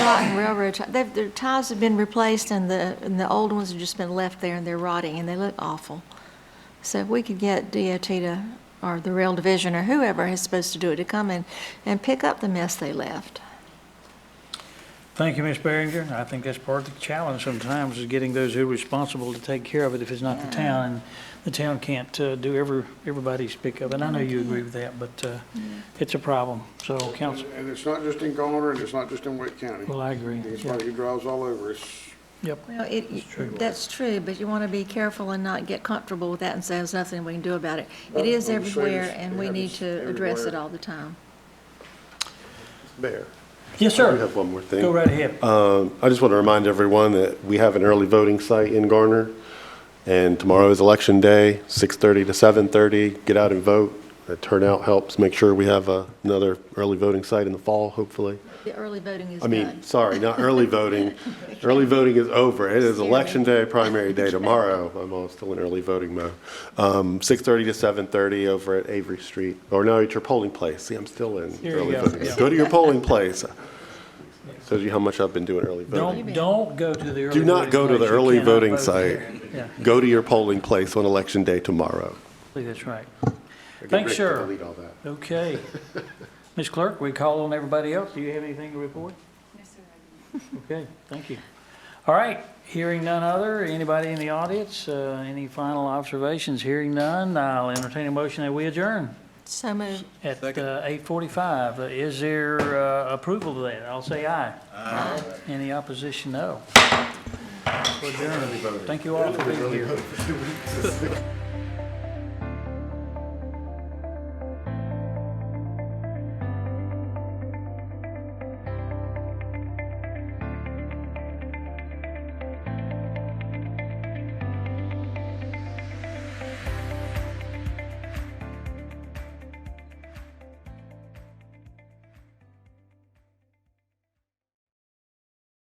and railroad, ti- they've- their ties have been replaced and the, and the old ones have just been left there and they're rotting and they look awful. So if we could get DOT to, or the rail division or whoever is supposed to do it to come in and pick up the mess they left. Thank you, Ms. Barringer. I think that's part of the challenge sometimes is getting those who are responsible to take care of it if it's not the town. And the town can't uh, do every, everybody's pickup. And I know you agree with that, but uh, it's a problem. So, council, And it's not just in Garner, and it's not just in Wake County. well, I agree. It's Yeah. somebody who drives all over. It's, Yep. Well, it, that's true, but you want to be careful and not get comfortable with that and say there's nothing we can do about it. It is Well, I'm sure it's- everywhere and we it need happens to address it everywhere. all the time. Mayor, Yes, I sir. do have one more thing. Go right ahead. Um, I just want to remind everyone that we have an early voting site in Garner, and tomorrow is Election Day, 6:30 to 7:30. Get out and vote. The turnout helps make sure we have uh, another early voting site in the fall, hopefully. The early voting is I mean, done. sorry, not early voting. Early voting is over. It is election day, primary day tomorrow. I'm all still in early voting mode. Um, 6:30 to 7:30 over at Avery Street, or no, at your polling place. See, I'm still in Here you early go, voting. yeah. mode. Go to your polling place. Shows you how much I've been doing early voting. Don't, don't go to the early. Do not voting go to the place. You early cannot voting vote site. there. Yeah, Go to your polling place on election day tomorrow. that's right. Thanks, sir. Delete all that. Okay. Ms. Clerk, we call on everybody else. Do you have anything to report? Okay, thank you. All right, hearing none other, anybody in the audience, uh, any final observations? Hearing none, I'll entertain a motion that we adjourn So moved. at uh, 8:45. Uh, Is there uh, approval to that? I'll say aye. Aye. Any opposition, no. We're adjourned. Thank you all for being here.